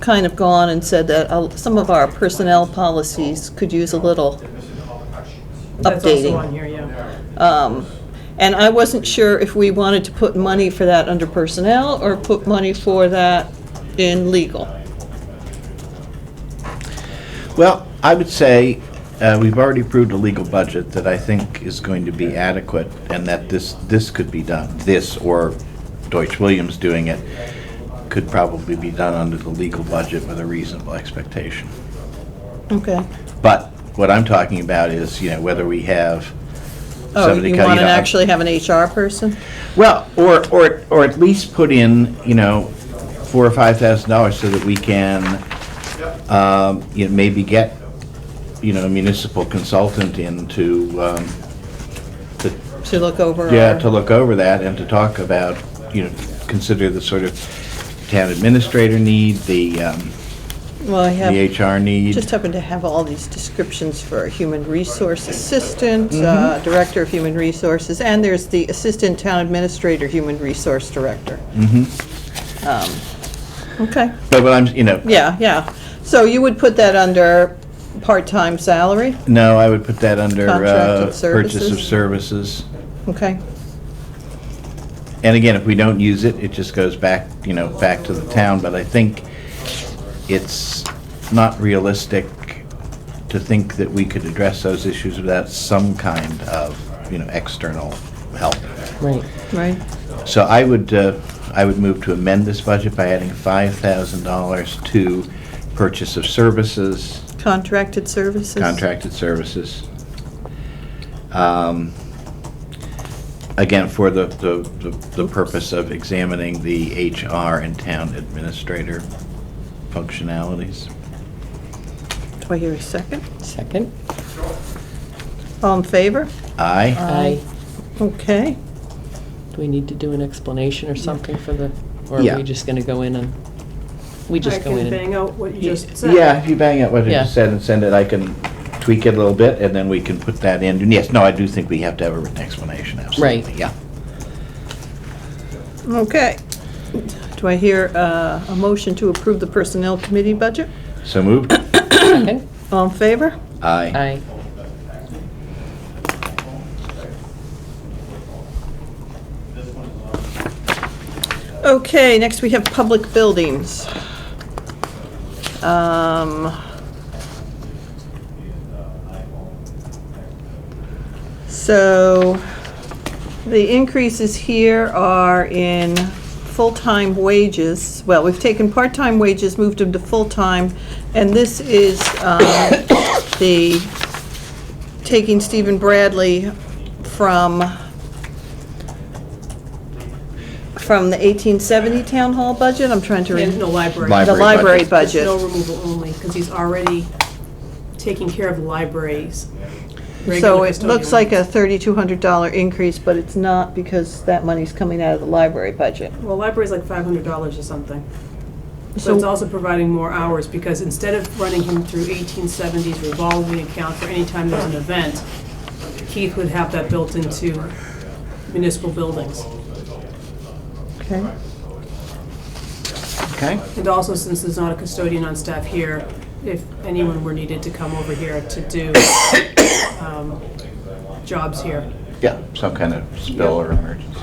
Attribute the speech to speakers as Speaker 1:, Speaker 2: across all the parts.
Speaker 1: kind of gone and said that uh, some of our personnel policies could use a little
Speaker 2: That's also on
Speaker 1: updating.
Speaker 2: here, yeah.
Speaker 1: Um, And I wasn't sure if we wanted to put money for that under personnel or put money for that in legal.
Speaker 3: Well, I would say, uh, we've already approved a legal budget that I think is going to be adequate, and that this, this could be done, this or Deutsch Williams doing it, could probably be done under the legal budget with a reasonable expectation.
Speaker 1: Okay.
Speaker 3: But what I'm talking about is, you know, whether we have
Speaker 1: Oh,
Speaker 3: somebody
Speaker 1: you
Speaker 3: co-
Speaker 1: want to
Speaker 3: know, I'm-
Speaker 1: actually have an HR person?
Speaker 3: Well, or, or, or at least put in, you know, four or five thousand dollars so that we can, um, you know, maybe get, you know, a municipal consultant in to, um, to,
Speaker 1: To look over?
Speaker 3: yeah,
Speaker 1: our-
Speaker 3: to look over that and to talk about, you know, consider the sort of town administrator need, the, um,
Speaker 1: Well, I have.
Speaker 3: the HR
Speaker 1: Just
Speaker 3: need.
Speaker 1: happen to have all these descriptions for human resource assistant, uh, director of human resources, and there's the assistant town administrator, human resource director. Mm-hmm. Okay,
Speaker 3: But what I'm, you know,
Speaker 1: yeah, yeah. So you would put that under part-time salary,
Speaker 3: no, I would put that under, uh,
Speaker 1: Contracted
Speaker 3: purchase of
Speaker 1: services.
Speaker 3: services.
Speaker 1: okay?
Speaker 3: And again, if we don't use it, it just goes back, you know, back to the town, but I think it's not realistic to think that we could address those issues without some kind of, you know, external help.
Speaker 4: Right.
Speaker 1: Right,
Speaker 3: So I would, uh, I would move to amend this budget by adding five thousand dollars to purchase of services,
Speaker 1: contracted services?
Speaker 3: contracted services. Um, Again, for the, the, the- the purpose of examining the HR and town administrator functionalities.
Speaker 1: Do I hear a second?
Speaker 4: Second?
Speaker 1: All in favor?
Speaker 2: Uh,
Speaker 3: Aye?
Speaker 4: Aye.
Speaker 1: Okay,
Speaker 4: Do we need to do an explanation or something for the, or are
Speaker 3: Yeah.
Speaker 4: we just gonna go in and, we
Speaker 2: I
Speaker 4: just go
Speaker 2: can
Speaker 4: in and?
Speaker 2: bang out what you just said.
Speaker 3: Yeah, if you bang out what I
Speaker 4: Yeah.
Speaker 3: just said and send it, I can tweak it a little bit, and then we can put that in. And yes, no, I do think we have to have a written explanation, absolutely,
Speaker 4: Right.
Speaker 3: yeah.
Speaker 1: okay. Do I hear uh, a motion to approve the personnel committee budget?
Speaker 3: So moved?
Speaker 4: Second?
Speaker 1: All in favor?
Speaker 3: Aye.
Speaker 4: Aye.
Speaker 1: Okay, next we have public buildings. Um, So, the increases here are in full-time wages. Well, we've taken part-time wages, moved them to full-time, and this is um, the, taking Stephen Bradley from from the 1870 town hall budget, I'm trying to read.
Speaker 2: And the library.
Speaker 3: Library.
Speaker 1: The library
Speaker 3: budget.
Speaker 2: There's
Speaker 1: budget.
Speaker 2: No removal only, because he's already taking care of the libraries.
Speaker 1: So
Speaker 2: regular
Speaker 1: it looks
Speaker 2: custodial
Speaker 1: like a
Speaker 2: needs.
Speaker 1: $3,200 increase, but it's not because that money's coming out of the library budget.
Speaker 2: Well, library's like five hundred dollars or something. So it's
Speaker 1: So,
Speaker 2: also providing more hours, because instead of running him through eighteen seventies revolving account for any time there's an event, Keith would have that built into municipal buildings.
Speaker 1: okay,
Speaker 3: Okay.
Speaker 2: And also, since there's not a custodian on staff here, if anyone were needed to come over here to do um, jobs here.
Speaker 3: Yeah, some kind of spill or emergency.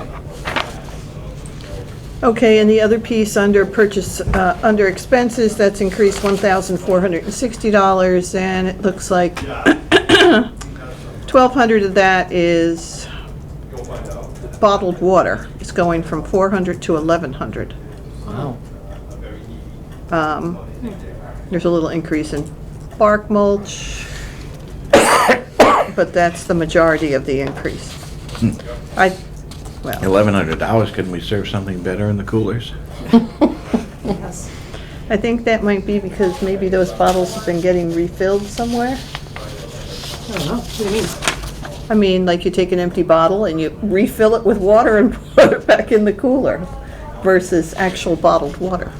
Speaker 1: Okay, and the other piece under purchase, uh, under expenses, that's increased $1,460, and it looks like 1,200 of that is bottled water. It's going from 400 to 1,100.
Speaker 4: Wow.
Speaker 1: Um, There's a little increase in bark mulch, but that's the majority of the increase. I, well,
Speaker 3: Eleven hundred dollars, couldn't we serve something better in the coolers?
Speaker 2: Yes.
Speaker 1: I think that might be because maybe those bottles have been getting refilled somewhere.
Speaker 2: I don't know, what do you mean?
Speaker 1: I mean, like you take an empty bottle and you refill it with water and put it back in the cooler versus actual bottled water.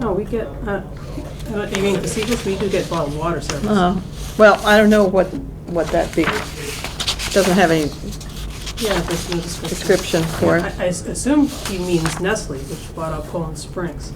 Speaker 2: No, we get, uh, I don't- you mean Casitas, we do get bottled water service.
Speaker 1: Uh, Well, I don't know what, what that be. Doesn't have any
Speaker 2: Yeah, there's no description.
Speaker 1: description for it.
Speaker 2: I I s- assume he means Nestle, which bought out Poland Springs.